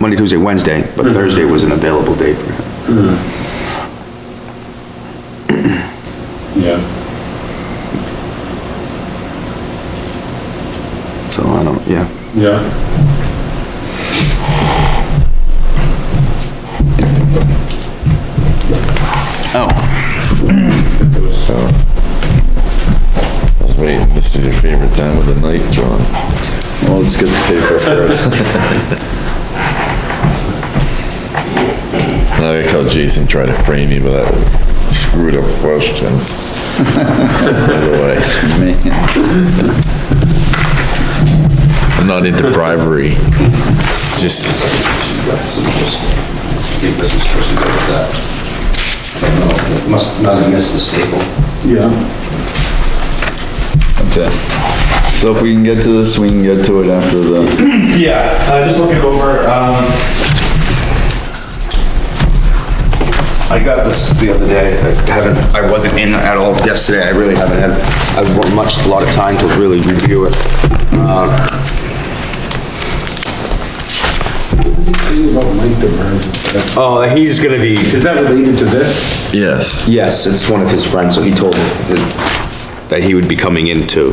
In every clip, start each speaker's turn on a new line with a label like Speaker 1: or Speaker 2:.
Speaker 1: Monday, Tuesday, Wednesday, but Thursday was an available day for him.
Speaker 2: Yeah.
Speaker 1: So I don't, yeah.
Speaker 2: Yeah.
Speaker 1: Oh.
Speaker 3: That's me, this is your favorite time of the night, John.
Speaker 4: Well, let's get the paper first.
Speaker 3: I like how Jason tried to frame me with that screwed up question. By the way, I'm not into bribery, just,
Speaker 5: Give this is first, we go with that. No, it Must not have missed the staple.
Speaker 2: Yeah.
Speaker 4: Okay. So if we can get to this, we can get to it after the,
Speaker 6: Yeah, uh, just looking over, um,
Speaker 1: I got this the other day, I haven't, I wasn't in at all yesterday, I really haven't had, I've had much, a lot of time to really review it. Uh,
Speaker 2: About Mike DeBurn.
Speaker 1: Oh, he's gonna be,
Speaker 2: Is that related to this?
Speaker 3: yes.
Speaker 1: yes, it's one of his friends, so he told me that- that he would be coming in to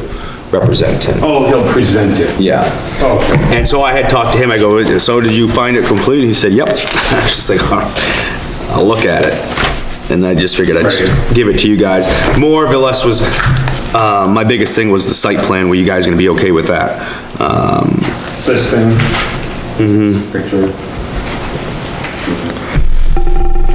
Speaker 1: represent him.
Speaker 2: Oh, he'll present it.
Speaker 1: Yeah.
Speaker 2: Okay.
Speaker 1: And so I had talked to him, I go, so did you find it complete? He said, yep. I was just like, all right, I'll look at it. And I just figured I'd just give it to you guys. More or less was, uh, my biggest thing was the site plan, were you guys gonna be okay with that? Um,
Speaker 2: This thing? Mm-hmm. Picture.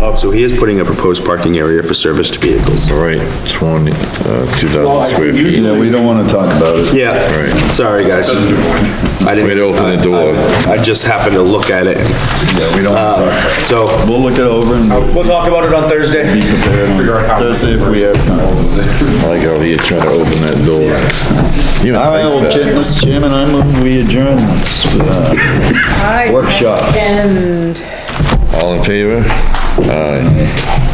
Speaker 1: oh, so he is putting a proposed parking area for serviced vehicles.
Speaker 3: All right, twenty, uh, two
Speaker 2: Well, I
Speaker 3: thousand square feet.
Speaker 4: yeah, we don't wanna talk about it.
Speaker 1: Yeah,
Speaker 3: Right.
Speaker 1: sorry, guys. I didn't-
Speaker 3: Way to open the door.
Speaker 1: I I just happened to look at it, Uh,
Speaker 4: Yeah, we don't wanna talk.
Speaker 1: so.
Speaker 4: We'll look it over and
Speaker 1: We'll talk about it on Thursday.
Speaker 4: be prepared on Thursday if we have time.
Speaker 3: I like how he tried to open that door. You
Speaker 4: All right, well,
Speaker 3: have
Speaker 4: Cha-
Speaker 3: a face
Speaker 4: Mr. Chairman, I move we adjourn this, uh,
Speaker 7: All right.
Speaker 4: Workshop.
Speaker 7: And
Speaker 3: back. All in favor? Aye.